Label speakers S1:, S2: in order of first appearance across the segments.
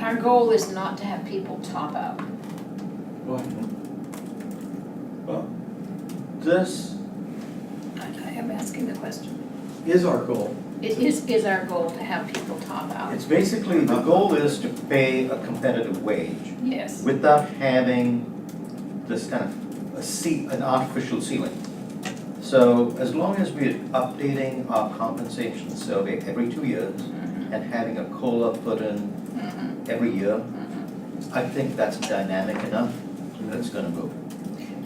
S1: our goal is not to have people top out.
S2: Well, well, this
S1: I I am asking the question.
S2: is our goal.
S1: It is, is our goal to have people top out?
S3: It's basically, the goal is to pay a competitive wage
S1: Yes.
S3: without having this kind of a ce- an artificial ceiling. So as long as we're updating our compensation survey every two years
S1: Mhm,
S3: and having a COLA put in
S1: mhm,
S3: every year,
S1: mhm.
S3: I think that's dynamic enough that it's gonna move.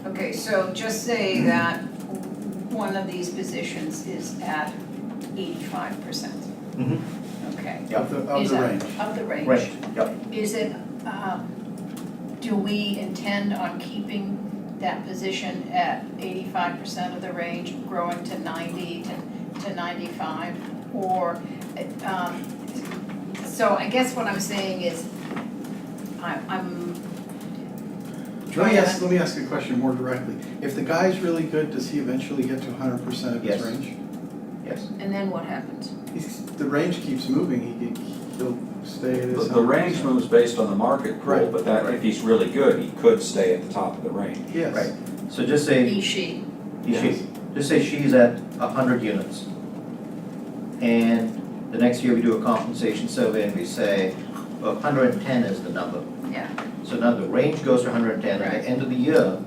S1: Okay, so just say that one of these positions is at eighty-five percent.
S3: Mhm.
S1: Okay.
S3: Yeah.
S4: Of the, of
S1: Is
S4: the
S1: that-
S4: range.
S1: Of the range.
S3: Right, yeah.
S1: Is it, um, do we intend on keeping that position at eighty-five percent of the range, growing to ninety to, to ninety-five? Or, um, so I guess what I'm saying is, I, I'm,
S4: Let me ask, let me ask a question more directly. If the guy's really good, does he eventually get to hundred percent of his
S3: Yes.
S4: range?
S3: Yes.
S1: and then what happens?
S4: He's, the range keeps moving, he, can- he'll stay at
S5: The,
S4: his.
S5: the range
S4: 100%.
S5: moves based on the market pool,
S4: Right.
S5: but that, if he's really good, he could stay at the top of the range.
S4: Yes.
S3: Right. So just say,
S1: He, she,
S3: she, just say she's at a hundred units. And the next year we do a compensation survey and we say, well, hundred and ten is the number.
S1: yeah,
S3: So now the range goes to hundred and ten, at
S1: Right.
S3: the end of the year,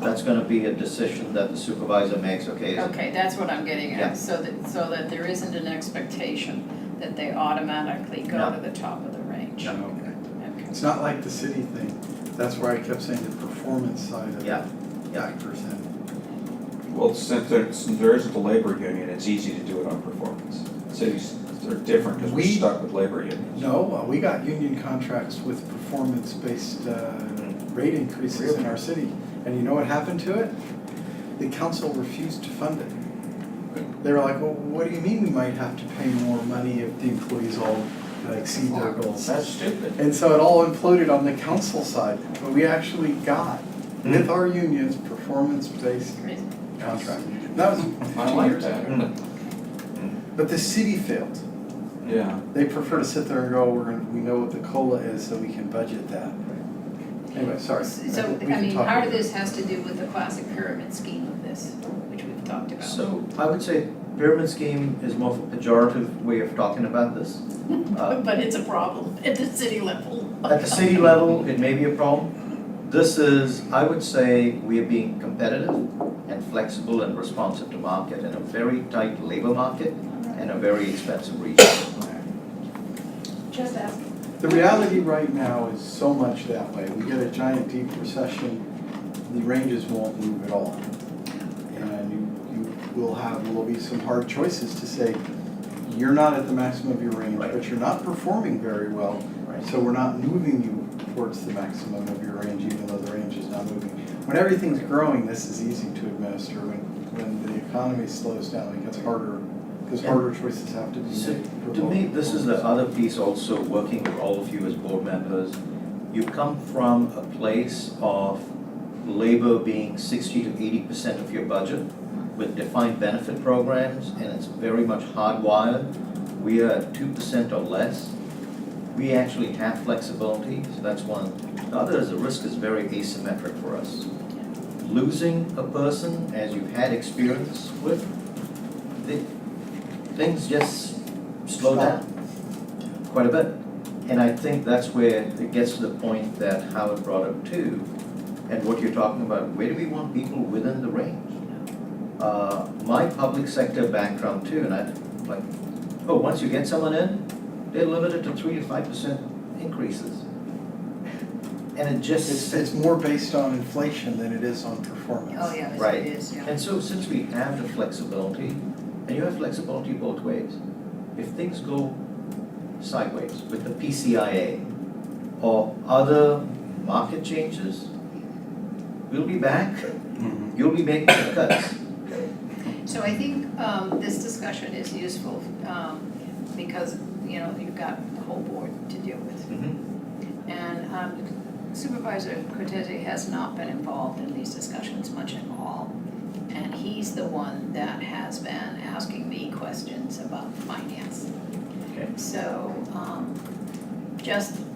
S3: that's gonna be a decision that the supervisor makes, okay? is-
S1: okay, that's what I'm getting
S3: Yeah.
S1: at, so that, so that there isn't an expectation that they automatically go
S3: No.
S1: to the top of the range.
S3: No.
S1: Okay.
S4: It's not like the city thing. That's why I kept saying the performance side of
S3: Yeah,
S4: it,
S3: yeah.
S4: factors in.
S5: Well, since there, since there isn't a labor union, it's easy to do it on performance. Cities are different because we're
S4: We-
S5: stuck with labor unions.
S4: No, uh, we got union contracts with performance-based, uh, rate increases in our city. And you know what happened to it? The council refused to fund it. They were like, well, what do you mean we might have to pay more money if the employees all uh, exceed their goals?
S5: That's stupid.
S4: And so it all imploded on the council side, but we actually got,
S5: Hmm.
S4: with our unions, performance-based contract. And That was
S5: I
S4: fifteen
S5: like
S4: years ago.
S5: that.
S4: But the city failed.
S5: Yeah.
S4: They prefer to sit there and go, we're gonna, we know what the COLA is, so we can budget that. Anyway, sorry.
S1: So,
S4: think we
S1: I
S4: can
S1: mean,
S4: talk
S1: part of
S4: later.
S1: this has to do with the classic pyramid scheme of this, which we've talked about.
S3: So uh, I would say pyramid scheme is more of a pejorative way of talking about this. Uh,
S1: But it's a problem at the city level.
S3: At the city level, it may be a problem. This is, I would say, we are being competitive and flexible and responsive to market in a very tight labor market and a very expensive region.
S1: Just asking.
S4: The reality right now is so much that way. We get a giant deep recession, the ranges won't move at all. And you, you will have, will be some hard choices to say, you're not at the maximum of your range,
S3: Right.
S4: but you're not performing very well,
S3: Right.
S4: so we're not moving you towards the maximum of your range, even though the range is not moving. When everything's growing, this is easy to administer. When, when the economy slows down, it gets harder, because
S3: Yeah.
S4: harder choices have to be
S3: So,
S4: made. for
S3: To
S4: both
S3: me, this is the
S4: performance.
S3: other piece also, working with all of you as board members. You come from a place of labor being sixty to eighty percent of your budget with defined benefit programs, and it's very much hardwired. We are two percent or less. We actually have flexibility, so that's one. The other is the risk is very asymmetric for us. Losing a person, as you've had experience with, thi- things just slow down quite a bit. And I think that's where it gets to the point that Howard brought up too, and what you're talking about, where do we want people within the range?
S1: Oh,
S3: Uh, my public sector background too, and I, like, oh, once you get someone in, they're limited to three to five percent increases. And it just.
S4: It's, it's more based on inflation than it is on performance.
S1: Oh, yeah, yes,
S3: Right.
S1: it is, yeah.
S3: And so since we have the flexibility, and you have flexibility both ways, if things go sideways with the PCIA or other market changes, we'll be back, you'll be making the cuts.
S1: So I think um, this discussion is useful um, because, you know, you've got the whole board to deal with.
S3: Mm-hmm.
S1: And um, Supervisor Cortese has not been involved in these discussions much at all. And he's the one that has been asking me questions about finance.
S3: Okay.
S1: So um, just